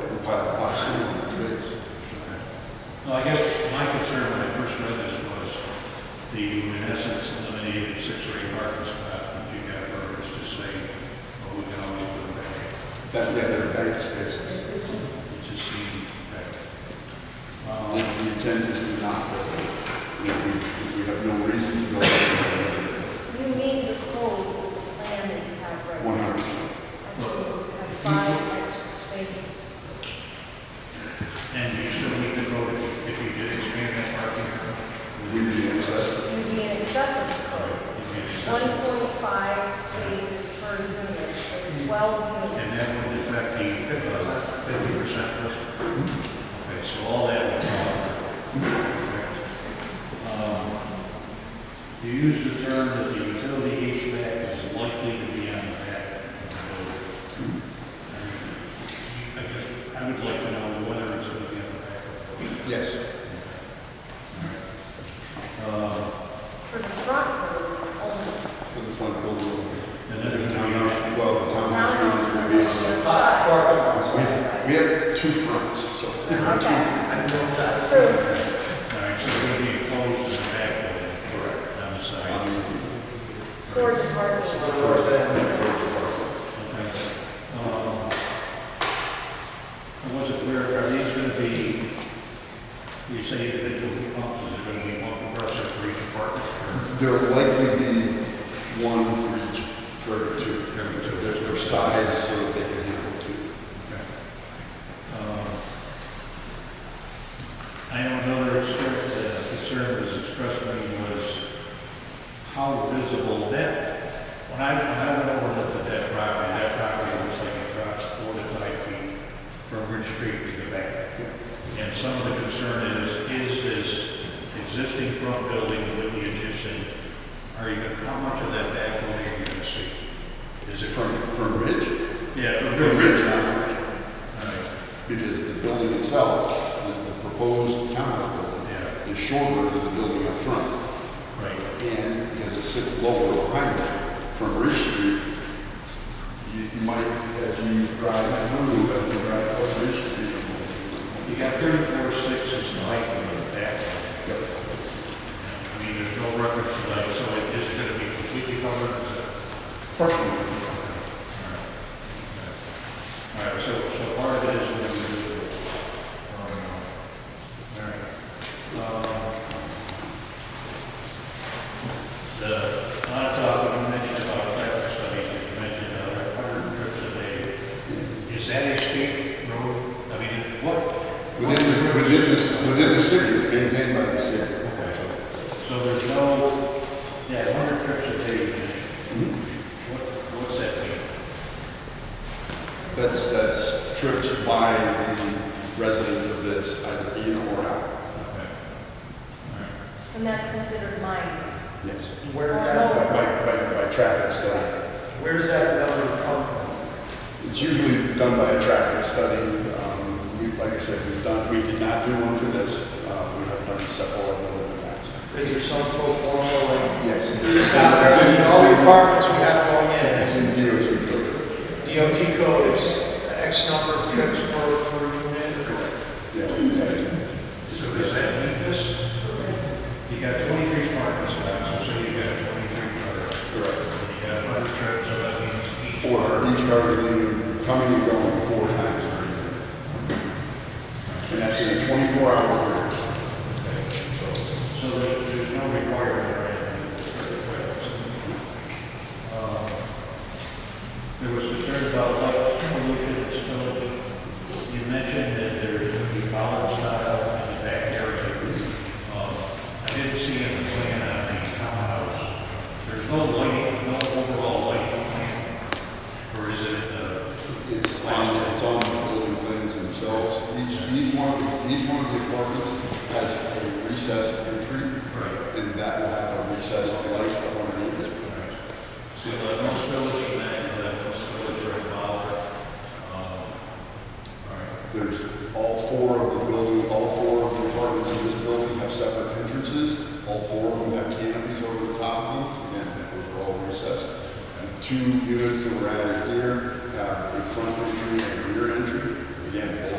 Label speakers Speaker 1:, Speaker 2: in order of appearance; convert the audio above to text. Speaker 1: why, why some of the trees.
Speaker 2: Well, I guess my concern when I first read this was the, in essence, eliminated six or eight parking spots, but you got voters to say, well, we can always put them back.
Speaker 1: That, yeah, they're paid spaces.
Speaker 2: It just seemed that,
Speaker 1: Um, The intent is to not, go there. we, we- we have no reason to go there.
Speaker 3: You need the full plan that you have right
Speaker 1: one
Speaker 3: now.
Speaker 1: hundred percent.
Speaker 3: Actually, you have five extra spaces.
Speaker 2: and you still need to vote if you did expand that parking area.
Speaker 1: We need access,
Speaker 3: You'd be in excess of
Speaker 2: it'd be accessible.
Speaker 3: 1.5 spaces per unit, there's 12
Speaker 2: And
Speaker 3: units.
Speaker 2: that would affect the fifty percent Okay, so all that would fall. Um, You use the term that the utility HVAC is likely to be on the back of the building. I guess, I would like to know whether it's going to be on the back. of the building.
Speaker 1: yes.
Speaker 2: Uh,
Speaker 3: For the front room only,
Speaker 1: For the front building.
Speaker 2: And
Speaker 1: The
Speaker 2: then it's going to
Speaker 1: townhouse, well, the townhouse
Speaker 3: townhouse
Speaker 1: is
Speaker 3: is
Speaker 1: going
Speaker 3: on
Speaker 1: to be on
Speaker 3: the other
Speaker 1: the.
Speaker 3: side.
Speaker 1: We we have two fronts, so there are two.
Speaker 3: Okay. True.
Speaker 2: be, all right, so it's going to be enclosed in the back of it. Correct. On the side.
Speaker 1: I mean,
Speaker 3: Toward the parking lot.
Speaker 2: Okay. Um, I wasn't clear, are these going to be, you say individual heat pumps, is there going to be one compressor for each apartment? or-
Speaker 1: There will likely be one for each, for two,
Speaker 2: Every
Speaker 1: their, their size, so that they can handle two.
Speaker 2: Okay. Um, I know another express- uh, concern was expressed to me was how visible that, when I, when I went over and looked at that property, that property looks like it drops four to five feet from Ridge Street to the back. And some of the concern is, is this existing front building with the addition, are you, gonna- how much of that back building are you gonna see? Is it from,
Speaker 1: From, from ridge,
Speaker 2: yeah, from
Speaker 1: from
Speaker 2: Ridge?
Speaker 1: ridge, not ridge,
Speaker 2: All right.
Speaker 1: because the building itself, the the proposed townhouse
Speaker 2: Yeah.
Speaker 1: building, is shorter than the building up front.
Speaker 2: Right.
Speaker 1: And because it sits lower behind it, from Ridge Street, you, you might, as you drive through, as you drive up Ridge Street,
Speaker 2: You got thirty-four sixes in height in the back. I mean, there's no reference to that, so it is gonna be completely covered. All
Speaker 1: partially,
Speaker 2: right, so, so part of it is gonna be. um, All right. Um, The, a lot of talk, you mentioned about traffic studies, and you mentioned about hundred trips a day. Is that a state road? I mean, what?
Speaker 1: Within, the- within this, within the city, it's maintained by the city.
Speaker 2: So there's no, yeah, hundred trips a day, what, what's that mean?
Speaker 1: That's, that's trips by the residents of this, either in or out.
Speaker 3: And that's considered minor.
Speaker 1: Yes.
Speaker 4: Where's
Speaker 1: By,
Speaker 4: that,
Speaker 1: by, by traffic study.
Speaker 4: where's that number come from?
Speaker 1: It's usually done by a traffic study. Um, we, like I said, we've done, we did not do one for this. Uh, we have done several of them in the past.
Speaker 4: Is there some pro forma, like,
Speaker 1: Yes.
Speaker 4: there's not, there's all the apartments we have going in,
Speaker 1: It's in DOT code.
Speaker 4: DOT code is X number of trips per, per unit.
Speaker 1: Yeah.
Speaker 2: So does that mean this? You got twenty-three parking spots, so say you got twenty-three cars,
Speaker 1: Correct.
Speaker 2: and you got hundred trips, so that means each
Speaker 1: Four,
Speaker 2: car.
Speaker 1: each car is leaving, coming and going four times. per year. And that's in a twenty-four hour period.
Speaker 2: So there's, there's no requirement or anything. Uh, There was concern about light pollution and smoke. You mentioned that there would be power style in the back area. Um, I didn't see in the plan on the townhouse. There's no lighting, no overall lighting plan, or is it, uh,
Speaker 1: It's on, it's on the building plans themselves. Each, each one, of the- each one of the apartments has a recessed entry,
Speaker 2: right?
Speaker 1: and that will have a recessed light underneath it.
Speaker 2: So uh, most villages, uh, most villages are involved. Um, All right.
Speaker 1: There's all four of the building, all four of the apartments in this building have separate entrances. All four of them have canopies over the top of them, again, those are all recessed. The two units that were added here have a front entry and a rear entry. Again, both